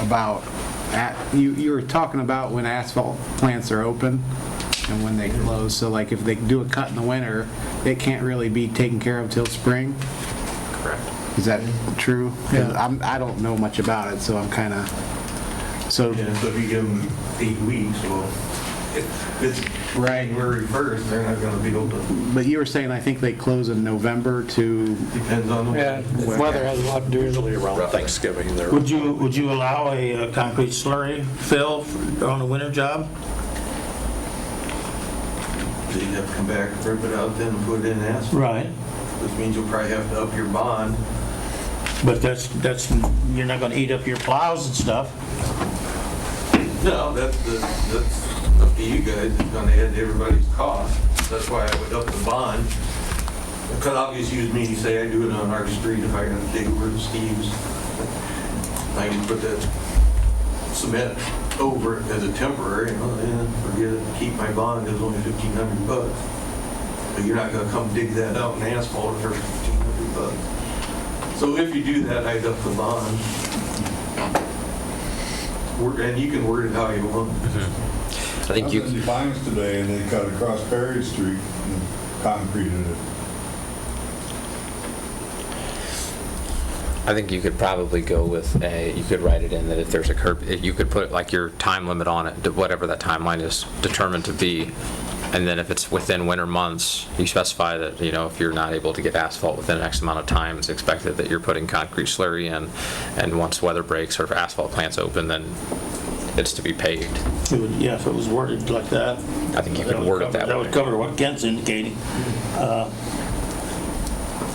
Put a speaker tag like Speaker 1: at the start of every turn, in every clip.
Speaker 1: about, at- you, you were talking about when asphalt plants are open and when they close, so like if they do a cut in the winter, it can't really be taken care of till spring? Correct. Is that true? 'Cause
Speaker 2: Yeah.
Speaker 1: I'm, I don't know much about it, so I'm kind of, so,
Speaker 3: Yeah, so if you give them eight weeks, well, if it's January 1st, they're not going to be able to,
Speaker 1: but you were saying, I think they close in November to,
Speaker 3: depends on the
Speaker 2: Yeah,
Speaker 3: weather.
Speaker 2: weather has a lot to do with
Speaker 4: Usually
Speaker 2: it.
Speaker 4: around Thanksgiving, they're,
Speaker 5: Would you, would you allow a uh, concrete slurry fill on a winter job?
Speaker 3: So you'd have to come back, rip it out, then put it in asphalt,
Speaker 5: Right.
Speaker 3: which means you'll probably have to up your bond.
Speaker 5: But that's, that's, you're not gonna eat up your plows and stuff.
Speaker 3: No, that's, the- that's up to you guys, it's going to add to everybody's cost. That's why I would up the bond. Cut off just use me, say I do it on our street if I gotta dig where Steve's. I can put that cement over it as a temporary, and well, yeah, forget it, keep my bond, it's only fifteen hundred bucks. But you're not gonna come dig that out and asphalt it for fifteen hundred bucks. So if you do that, I'd up the bond. Word- And you can word it how you want.
Speaker 4: I think
Speaker 6: I was
Speaker 4: you,
Speaker 6: in Vines today and they cut across Perry Street and concreted it.
Speaker 4: I think you could probably go with a, you could write it in that if there's a curb, you could put like your time limit on it, whatever that timeline is determined to be. And then if it's within winter months, you specify that, you know, if you're not able to get asphalt within X amount of time, it's expected that you're putting concrete slurry in. And once weather breaks or if asphalt plants open, then it's to be paved.
Speaker 5: It would, yeah, if it was worded like that.
Speaker 4: I think you could
Speaker 5: would
Speaker 4: word it
Speaker 5: cover-
Speaker 4: that
Speaker 5: That would
Speaker 4: way.
Speaker 5: cover what Kent's indicating.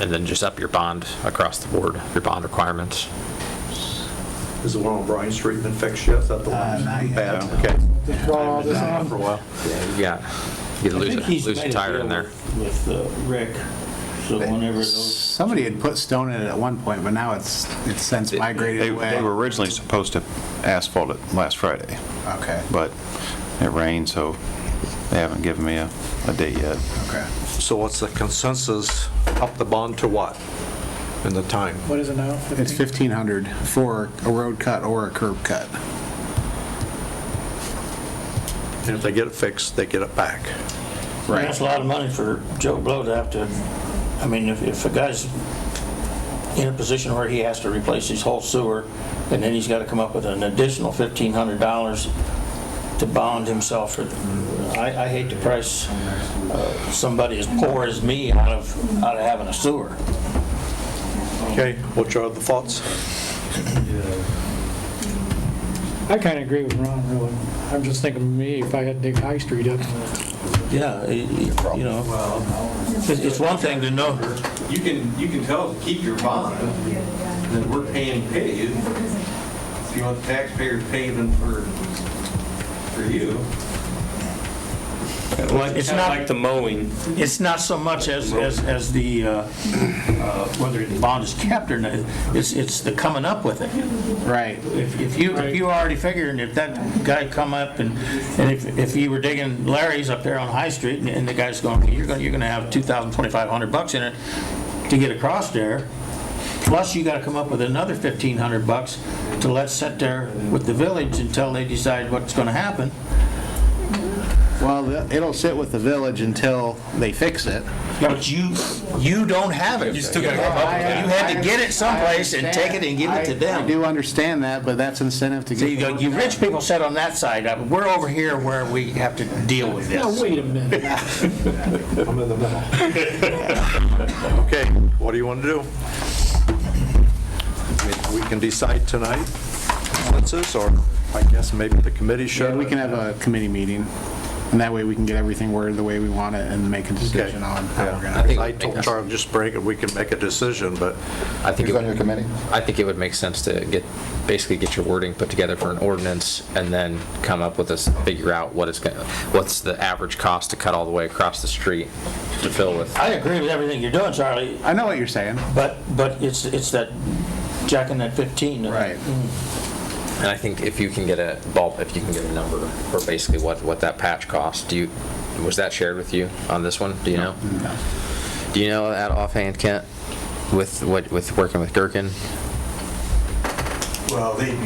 Speaker 4: And then just up your bond across the board, your bond requirements.
Speaker 7: Is the one on Bryan Street been fixed yet? Is that the
Speaker 1: Uh,
Speaker 7: one?
Speaker 1: not yet.
Speaker 7: Bad, okay.
Speaker 2: Draw all this on.
Speaker 7: For a while.
Speaker 4: Yeah, you
Speaker 5: I
Speaker 4: lose
Speaker 5: think
Speaker 4: a,
Speaker 5: he's
Speaker 4: lose a
Speaker 5: made a
Speaker 4: tire in
Speaker 5: deal
Speaker 4: there.
Speaker 5: With uh, Rick, so whenever those,
Speaker 1: somebody had put stone in it at one point, but now it's, it's since
Speaker 8: They
Speaker 1: migrated away.
Speaker 8: they were originally supposed to asphalt it last Friday,
Speaker 1: Okay,
Speaker 8: but it rained, so they haven't given me a, a date yet.
Speaker 1: okay.
Speaker 7: So what's the consensus? Up the bond to what? And the time?
Speaker 2: What is it now?
Speaker 1: It's
Speaker 2: 15?
Speaker 1: 1,500 for a road cut or a curb cut.
Speaker 7: And if they get it fixed, they get it back.
Speaker 5: that's a lot of money for Joe Blow to have to, I mean, if, if a guy's in a position where he has to replace his whole sewer, and then he's gotta come up with an additional fifteen hundred dollars to bond himself for, I, I hate to price uh, somebody as poor as me out of, out of having a sewer.
Speaker 7: Okay, what's your other thoughts?
Speaker 2: I kind of agree with Ron, really. I'm just thinking, me, if I had to dig High Street up,
Speaker 5: Yeah, it- it- you know,
Speaker 3: Well,
Speaker 5: it's it's one thing to know,
Speaker 3: You can, you can tell us to keep your bond, that we're paying paid. If you want taxpayers paving for, for you.
Speaker 5: Well, it's
Speaker 9: Kinda
Speaker 5: not-
Speaker 9: like the mowing.
Speaker 5: It's not so much as, as, as the, uh, uh, whether the bond is kept or not, it's, it's the coming up with it.
Speaker 1: Right.
Speaker 5: If if you, if you already figured, if that guy come up and, and if, if you were digging Larry's up there on High Street and- and the guy's going, you're gonna, you're gonna have 2,000, 2,500 bucks in it to get across there, plus you gotta come up with another 1,500 bucks to let sit there with the village until they decide what's gonna happen.
Speaker 1: Well, the- it'll sit with the village until they fix it.
Speaker 5: But you, you don't have it. You still gotta come
Speaker 1: up with it.
Speaker 5: You had to get it someplace and take it and give it to
Speaker 1: I
Speaker 5: them.
Speaker 1: do understand that, but that's incentive to
Speaker 5: So you go,
Speaker 1: get.
Speaker 5: you rich people sit on that side, uh, we're over here where we have to deal with
Speaker 2: now,
Speaker 5: this.
Speaker 2: wait a minute.
Speaker 7: I'm in the middle. Okay, what do you want to do? I mean, We can decide tonight, consensus, or I guess maybe the committee should.
Speaker 1: Yeah, we can have a committee meeting, and that way we can get everything worded the way we want it and make a decision on how we're
Speaker 7: Yeah,
Speaker 1: gonna.
Speaker 7: I
Speaker 4: think-
Speaker 7: told Charlie, just break it, we can make a decision, but
Speaker 4: I think. Who's on your committee? I think it would make sense to get, basically get your wording put together for an ordinance and then come up with this, figure out what it's gonna, what's the average cost to cut all the way across the street to fill with.
Speaker 5: I agree with everything you're doing, Charlie,
Speaker 1: I know what you're saying.
Speaker 5: but, but it's, it's that jacking that 15. uh,
Speaker 1: Right.
Speaker 4: And I think if you can get a bulb, if you can get a number for basically what, what that patch costs, do you, was that shared with you on this one? Do you know? Do you know that offhand, Kent, with, what with working with Durkin?
Speaker 3: Well, they'd be